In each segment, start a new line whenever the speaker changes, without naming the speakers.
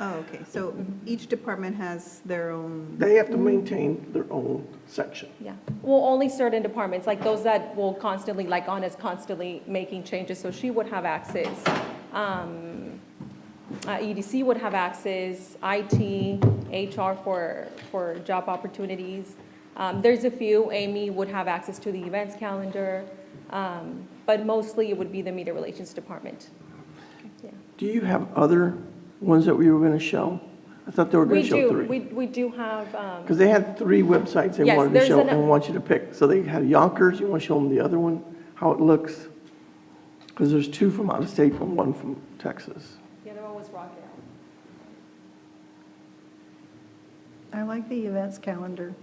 Oh, okay, so each department has their own,
They have to maintain their own section.
Yeah, well, only certain departments, like those that will constantly, like Anna's constantly making changes, so she would have access. Um, uh, EDC would have access, IT, HR for, for job opportunities. Um, There's a few, Amy would have access to the events calendar, um, but mostly it would be the media relations department. Yeah.
Do you have other ones that we were going to show? I thought they were going
We
to show
do,
three.
we, we do have, um,
Because they had three websites they
Yes,
wanted to
there's
show
an-
and want you to pick. So they had Yonkers, you want to show them the other one, how it looks? Because there's two from out of state and one from Texas.
the other one was Rockdale.
I like the events calendar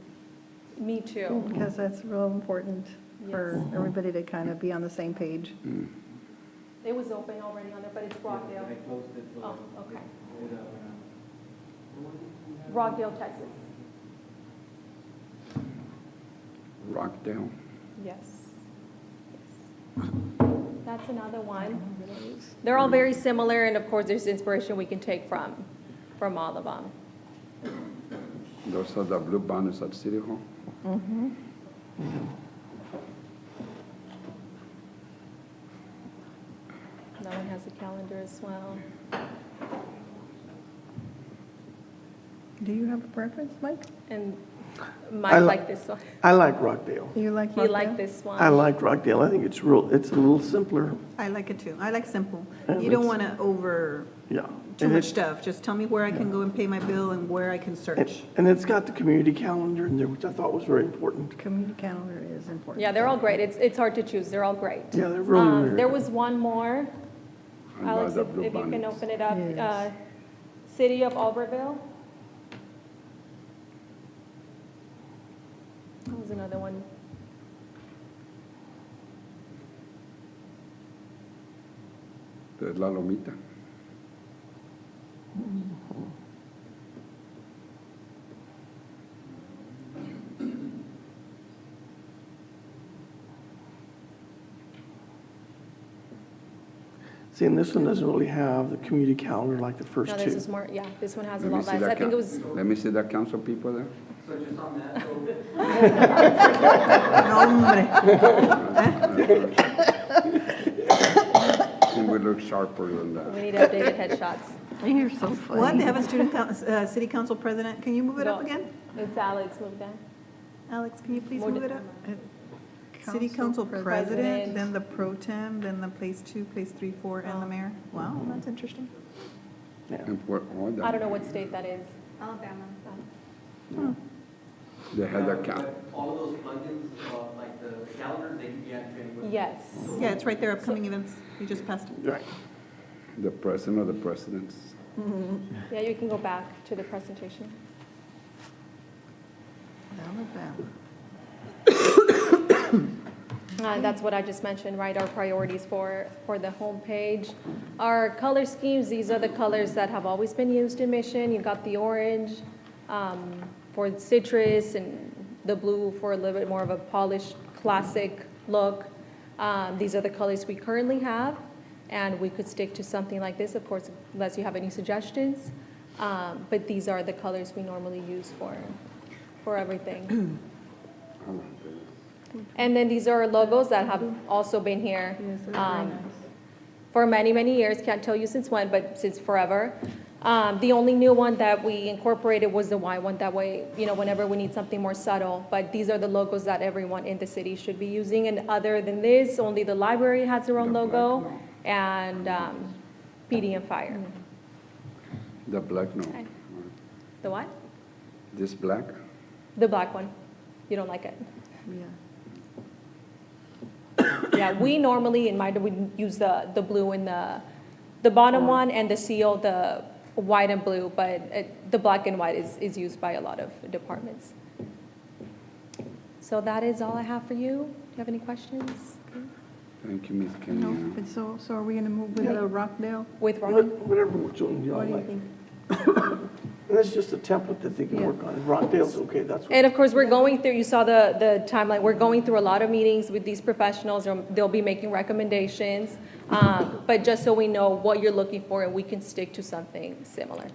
Me
Oh.
too.
because that's real important for everybody to kind of be on the same page.
It was open already on there, but it's Rockdale.
I closed it.
Oh, okay.
Hold up, uh,
Rockdale, Texas.
Rockdale.
Yes. That's another one. They're all very similar, and of course, there's inspiration we can take from, from all of them.
Those are the blue banners at City Hall.
That one has a calendar as well.
Do you have a preference, Mike?
And
I
Mike
li-
liked this one.
I like Rockdale.
You like
He liked
Rockdale?
this one.
I like Rockdale. I think it's real, it's a little simpler.
I like it too, I like simple.
Yeah,
You don't
it's-
want to over,
Yeah.
too
And
much
it-
stuff, just tell me where I can go and pay my bill and where I can search.
And it's got the community calendar in there, which I thought was very important.
Community calendar is important.
Yeah, they're all great. It's, it's hard to choose. They're all great.
Yeah, they're really
Um,
weird.
There was one more.
I love
Alex,
the
if
blue
if you can
banners.
open it up.
Yes.
Uh, City of Albertville. That was another one.
The La Lomita.
See, and this one doesn't really have the community calendar like the first
No, this
two.
is more, yeah, this one has a
Let me
lot
see
less. I
that
think
coun-
it was,
Let me see the council people there.
So just on that, so
No, hombre.
And we look sharper than
we
that.
need updated headshots.
You're so funny.
What, they have a student, coun- uh, city council president, can you move it up
No.
again?
It's Alex, move down.
Alex, can you please
More
move it
di-
up? City council president, then the pro tem, then the place two, place three, four, and the mayor? Wow, that's interesting.
And for all that.
I don't know what state that is.
Alabama.
They had a count.
but all of those plugins, uh, like the calendar, they can be activated with.
Yes.
Yeah, it's right there, upcoming events, you just passed it.
Right.
The president of the presidents.
Yeah, you can go back to the presentation.
Alabama.
Uh, That's what I just mentioned, right, our priorities for, for the homepage. Our color schemes, these are the colors that have always been used in Mission. You've got the orange um, for citrus and the blue for a little bit more of a polished, classic look. Um, These are the colors we currently have, and we could stick to something like this, of course, unless you have any suggestions. Um, But these are the colors we normally use for, for everything. And then these are logos that have also been here
Yes, they're very
um,
nice.
for many, many years. Can't tell you since when, but since forever. Um, The only new one that we incorporated was the Y one. That way, you know, whenever we need something more subtle. But these are the logos that everyone in the city should be using. And other than this, only the library has their own
The black
logo
one.
and um, PD and Fire.
Mm.
The black, no.
Okay. The what?
This black,
The black one. You don't like it?
Yeah.
Yeah, we normally, in mind, we use the, the blue and the, the bottom one and the seal, the white and blue, but it- the black and white is, is used by a lot of departments. So that is all I have for you. Do you have any questions
thank you, Miss
No,
Kenya.
but so, so are we gonna move with the Rockdale?
with Rocky?
What- Whatever which one you
What
all
do you
like.
think?
And that's just a template that they can
Yeah.
work on. If Rockdale's okay, that's what.
And of course, we're going through, you saw the, the timeline, we're going through a lot of meetings with these professionals, um, they'll be making recommendations. um, But just so we know what you're looking for and we can stick to something similar.